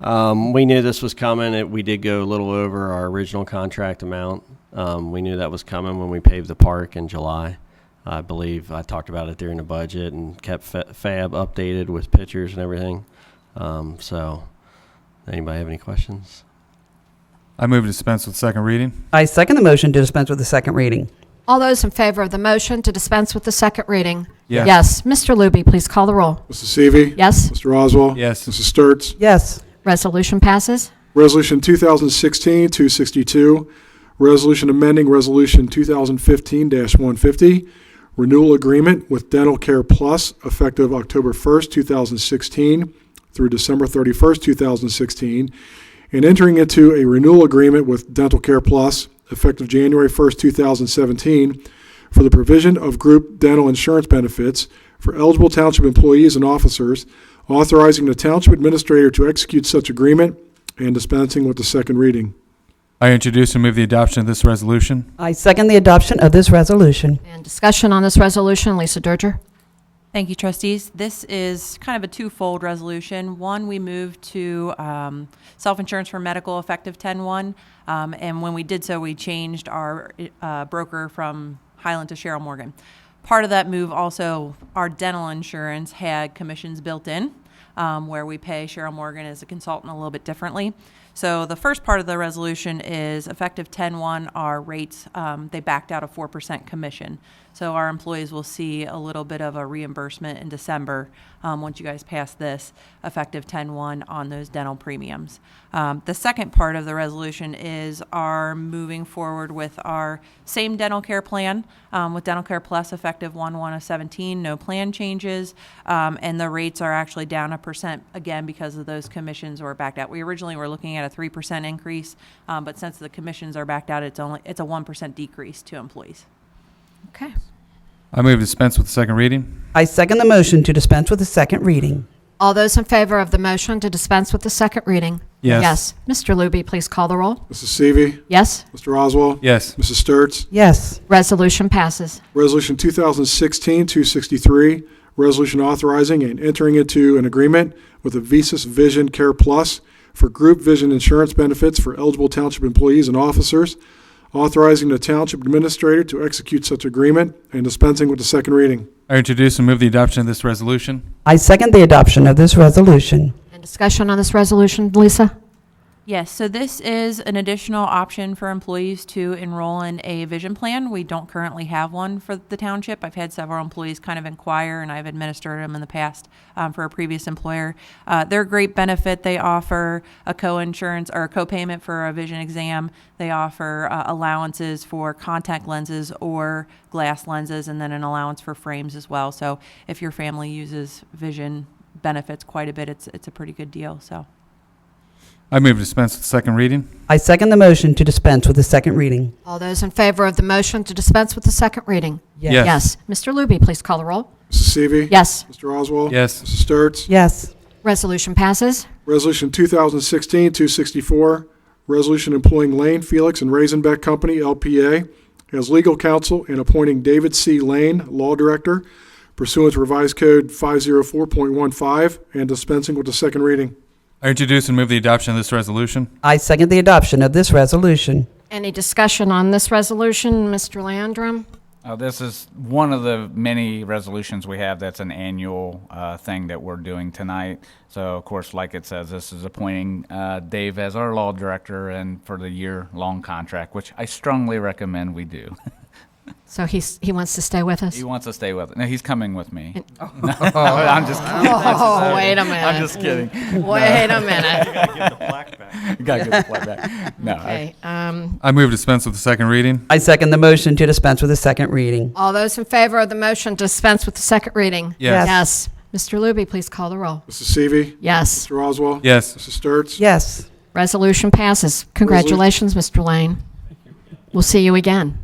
Um, we knew this was coming. It, we did go a little over our original contract amount. Um, we knew that was coming when we paved the park in July. I believe I talked about it during the budget and kept Fa- Fab updated with pictures and everything. Um, so, anybody have any questions? I move to dispense with second reading. I second the motion to dispense with the second reading. All those in favor of the motion to dispense with the second reading? Yes. Yes. Mr. Looby, please call the roll. Mrs. Seavey. Yes. Mr. Oswald. Yes. Mrs. Sturts. Yes. Resolution passes. Resolution 2016-262, resolution amending Resolution 2015-150, renewal agreement with Dental Care Plus effective October 1st, 2016 through December 31st, 2016, and entering into a renewal agreement with Dental Care Plus effective January 1st, 2017 for the provision of group dental insurance benefits for eligible township employees and officers, authorizing the township administrator to execute such agreement and dispensing with the second reading. I introduce and move the adoption of this resolution. I second the adoption of this resolution. And discussion on this resolution, Lisa Durger. Thank you, trustees. This is kind of a twofold resolution. One, we moved to um, self-insurance for medical effective 10-1, um, and when we did so, we changed our uh, broker from Highland to Cheryl Morgan. Part of that move also, our dental insurance had commissions built in, um, where we pay Cheryl Morgan as a consultant a little bit differently. So the first part of the resolution is effective 10-1, our rates, um, they backed out a 4% commission. So our employees will see a little bit of a reimbursement in December, um, once you guys pass this, effective 10-1 on those dental premiums. Um, The second part of the resolution is our moving forward with our same dental care plan, um, with Dental Care Plus effective 1-1 of 17, no plan changes. Um, And the rates are actually down a percent again because of those commissions were backed out. We originally were looking at a 3% increase, um, but since the commissions are backed out, it's only, it's a 1% decrease to employees. Okay. I move to dispense with second reading. I second the motion to dispense with the second reading. All those in favor of the motion to dispense with the second reading? Yes. Yes. Mr. Looby, please call the roll. Mrs. Seavey. Yes. Mr. Oswald. Yes. Mrs. Sturts. Yes. Resolution passes. Resolution 2016-263, resolution authorizing and entering into an agreement with Avisus Vision Care Plus for group vision insurance benefits for eligible township employees and officers, authorizing the township administrator to execute such agreement and dispensing with the second reading. I introduce and move the adoption of this resolution. I second the adoption of this resolution. And discussion on this resolution, Lisa? Yes, so this is an additional option for employees to enroll in a vision plan. We don't currently have one for the township. I've had several employees kind of inquire, and I've administered them in the past um, for a previous employer. Uh, they're a great benefit. They offer a co-insurance or a co-payment for a vision exam. They offer uh, allowances for contact lenses or glass lenses, and then an allowance for frames as well. So if your family uses vision benefits quite a bit, it's it's a pretty good deal. So. I move to dispense with second reading. I second the motion to dispense with the second reading. All those in favor of the motion to dispense with the second reading? Yes. Yes. Mr. Looby, please call the roll. Mrs. Seavey. Yes. Mr. Oswald. Yes. Mrs. Sturts. Yes. Resolution passes. Resolution 2016-264, resolution employing Lane, Felix, and Raisenbeck Company, LPA, as legal counsel and appointing David C. Lane, Law Director, pursuant to Revised Code 504.15, and dispensing with the second reading. I introduce and move the adoption of this resolution. I second the adoption of this resolution. Any discussion on this resolution, Mr. Landrum? Uh, This is one of the many resolutions we have that's an annual uh, thing that we're doing tonight. So, of course, like it says, this is appointing uh, Dave as our law director and for the year-long contract, which I strongly recommend we do. So he's, he wants to stay with us? He wants to stay with, no, he's coming with me. I'm just kidding. Oh, wait a minute. I'm just kidding. Wait a minute. Gotta get the flag back. No, I- Okay. um, I move to dispense with the second reading. I second the motion to dispense with the second reading. All those in favor of the motion to dispense with the second reading? Yes. Yes. Mr. Looby, please call the roll. Mrs. Seavey. Yes. Mr. Oswald. Yes. Mrs. Sturts. Yes. Resolution passes. Congratulations, Mr. Lane. We'll see you again.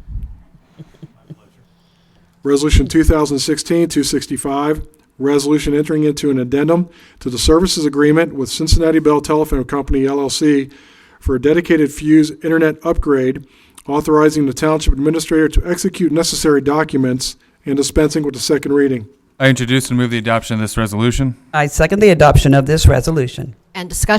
Resolution 2016-265, resolution entering into an addendum to the services agreement with Cincinnati Bell Telephone Company LLC for a dedicated fuse internet upgrade, authorizing the township administrator to execute necessary documents and dispensing with the second reading. I introduce and move the adoption of this resolution. I second the adoption of this resolution. And discussion